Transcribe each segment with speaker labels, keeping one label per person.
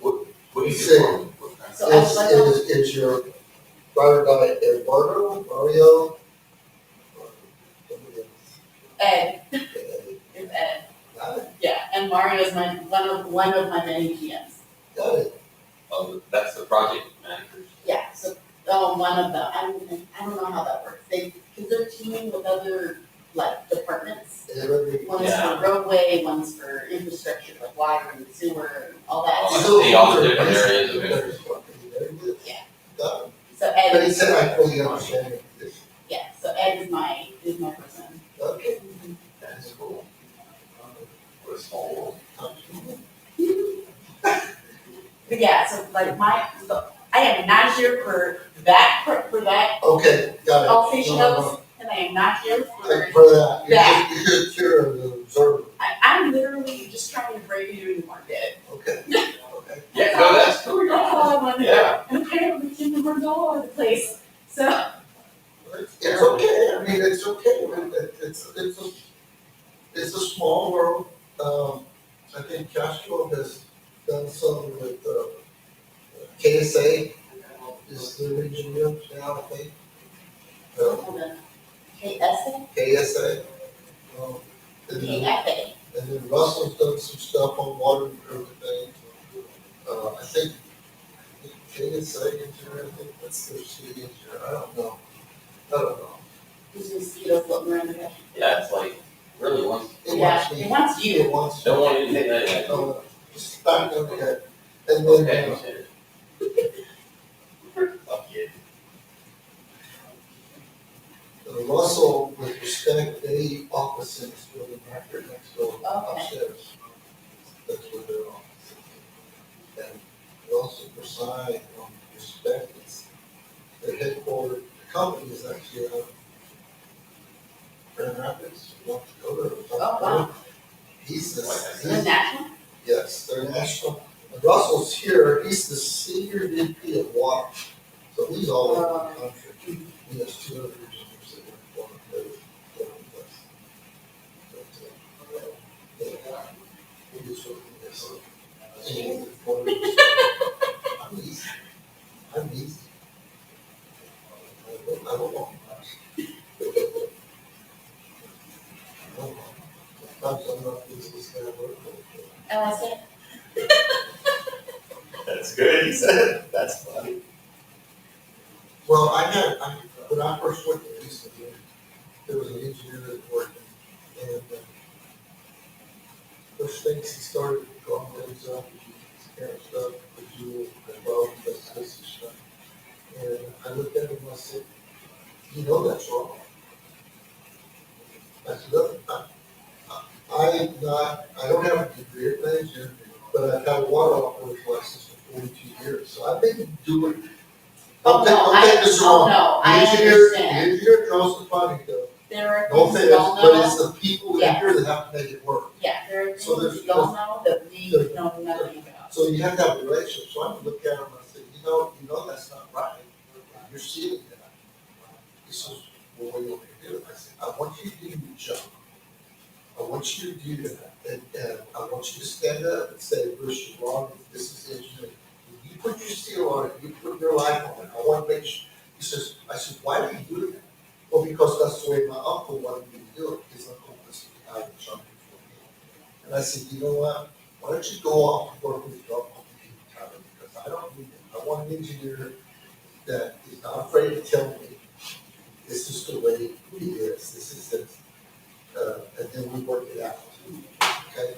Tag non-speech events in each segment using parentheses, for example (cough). Speaker 1: What, what is
Speaker 2: Sick.
Speaker 1: it from? What kind
Speaker 3: So I
Speaker 2: It's,
Speaker 3: was like, oh,
Speaker 2: it's, it's your, brother by Eduardo, Mario.
Speaker 3: Ed, it's Ed,
Speaker 2: Got it,
Speaker 3: yeah, and Mario is my, one of, one of my many PMs.
Speaker 2: got it.
Speaker 1: Oh, that's the project manager.
Speaker 3: Yeah, so, um, one of them, I don't, I don't know how that works, they, cause they're teaming with other, like, departments.
Speaker 2: And everybody-
Speaker 3: One's
Speaker 1: Yeah.
Speaker 3: for roadway, one's for infrastructure, like water and sewer and all
Speaker 1: Oh,
Speaker 3: that.
Speaker 1: I see all the different areas of interest.
Speaker 2: Very good.
Speaker 3: Yeah.
Speaker 2: Got it.
Speaker 3: So Ed
Speaker 2: But he
Speaker 3: is,
Speaker 2: said I fully understand it.
Speaker 3: yeah, so Ed is my, is my person.
Speaker 2: Okay.
Speaker 1: That's cool. What a small world.
Speaker 3: But yeah, so like my, so I am not here for that, per- for that
Speaker 2: Okay, got it.
Speaker 3: Alsatian
Speaker 2: No, no, no.
Speaker 3: Oaks, and I am not here for,
Speaker 2: Thank you for that. You're
Speaker 3: Yeah.
Speaker 2: just- You're just here as an observer.
Speaker 3: I, I'm literally just trying to break you into the market.
Speaker 2: Okay. Okay.
Speaker 1: Yeah, no, that's cool.
Speaker 3: That's all I wanted to do.
Speaker 1: Yeah.
Speaker 3: And apparently Kinder Morgan's all over the place, so,
Speaker 2: It's okay. I mean, it's okay. I mean, it- It's, it's, a, it's a small world. Um, I think Castro has done some with, uh, KSA, is the region you now, I think. Um,
Speaker 3: hold on. KSA,
Speaker 2: KSA. Um, and then-
Speaker 3: KFA,
Speaker 2: And then Russell's done some stuff on water and everything. Uh, I think, KSA engineer, I think that's their city engineer, I don't know. I don't know.
Speaker 3: these mosquitoes floating around the country.
Speaker 1: Yeah, it's like, really, once,
Speaker 2: It
Speaker 3: Yeah,
Speaker 2: wants me,
Speaker 3: it wants you.
Speaker 2: it wants.
Speaker 1: don't want anything that,
Speaker 2: Uh, Just back up ahead. And
Speaker 1: okay,
Speaker 2: then,
Speaker 1: I'm
Speaker 2: uh,
Speaker 1: serious. Fuck yeah.
Speaker 2: Russell, with respect, they office is really accurate next door
Speaker 3: Okay.
Speaker 2: upstairs. That's where their office is. And Russell Versailles, um, respect, it's their headquarters, the company is actually out of Grand Rapids, North Dakota. or
Speaker 3: Oh, wow.
Speaker 2: He's the,
Speaker 3: The
Speaker 2: he's,
Speaker 3: national,
Speaker 2: yes, they're national. And Russell's here, he's the senior VP of water, so he's all over the country. He has two other engineers that work for him, they're, they're with us. He was working there, so. and he's one of the- I'm easy, I'm easy. I don't, I don't want much. I don't want much. Sometimes I'm not easy, so I work with.
Speaker 3: LSA,
Speaker 1: (laughs) That's good, he said, that's funny.
Speaker 2: Well, I had, I, when I first went to Houston, there was an engineer that worked, and uh, first things he started drawing things up, and stuff, the jewel, the bow, the this and stuff. And I looked at him and I said, you know that's wrong. I said, look, I, I, I'm not, I don't have a degree in management, but I've had a water operator license for forty-two years, so I've been doing.
Speaker 3: oh
Speaker 2: Don't take-
Speaker 3: no,
Speaker 2: don't
Speaker 3: I,
Speaker 2: take this
Speaker 3: oh
Speaker 2: wrong.
Speaker 3: no, I
Speaker 2: Engineer,
Speaker 3: understand,
Speaker 2: engineer draws the funding though,
Speaker 3: there are
Speaker 2: no
Speaker 3: things
Speaker 2: offense,
Speaker 3: you don't
Speaker 2: but it's
Speaker 3: know,
Speaker 2: the people in here that have to make it work.
Speaker 3: yeah, there are things
Speaker 2: So there's-
Speaker 3: you don't know that we
Speaker 2: there's-
Speaker 3: know nothing about.
Speaker 2: So you have to have a relationship, so I can look at them and say, you know, you know that's not right, you're seeing that. This is what we want you to do, I said, I want you to do your job. I want you to do that, and, and I want you to stand up and say, Bruce, you're wrong, this is engineering. You put your seal on it, you put your life on it, I want to make sure, he says, I said, why do you do that? Well, because that's the way my uncle wanted me to do it, his uncle was the guy in charge for me. And I said, you know what, why don't you go off and work with your uncle in town, because I don't need it, I want an engineer that is not afraid to tell me, this is the way it is, this is the, uh, and then we work it out. Okay,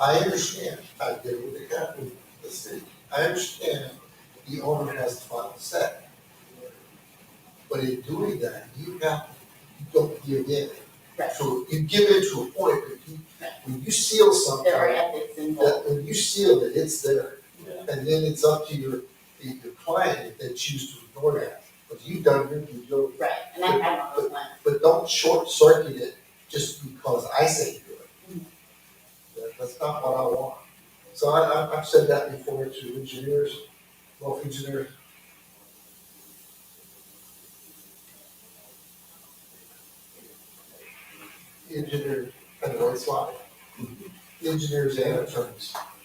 Speaker 2: I understand, I did what they got with the city, I understand the owner has the final say. But in doing that, you have, you don't give in.
Speaker 3: Right.
Speaker 2: So you give in to a point, but you, when you seal something,
Speaker 3: There are ethics involved.
Speaker 2: that when you seal it, it's there.
Speaker 1: Yeah.
Speaker 2: And then it's up to your, your client if they choose to ignore that. But you've done your due diligence.
Speaker 3: Right, and I have all those ones.
Speaker 2: But don't short circuit it just because I say do it. That- That's not what I want. So I, I, I've said that before to engineers, well, engineers. Engineer, I know it's live. Engineers and attorneys.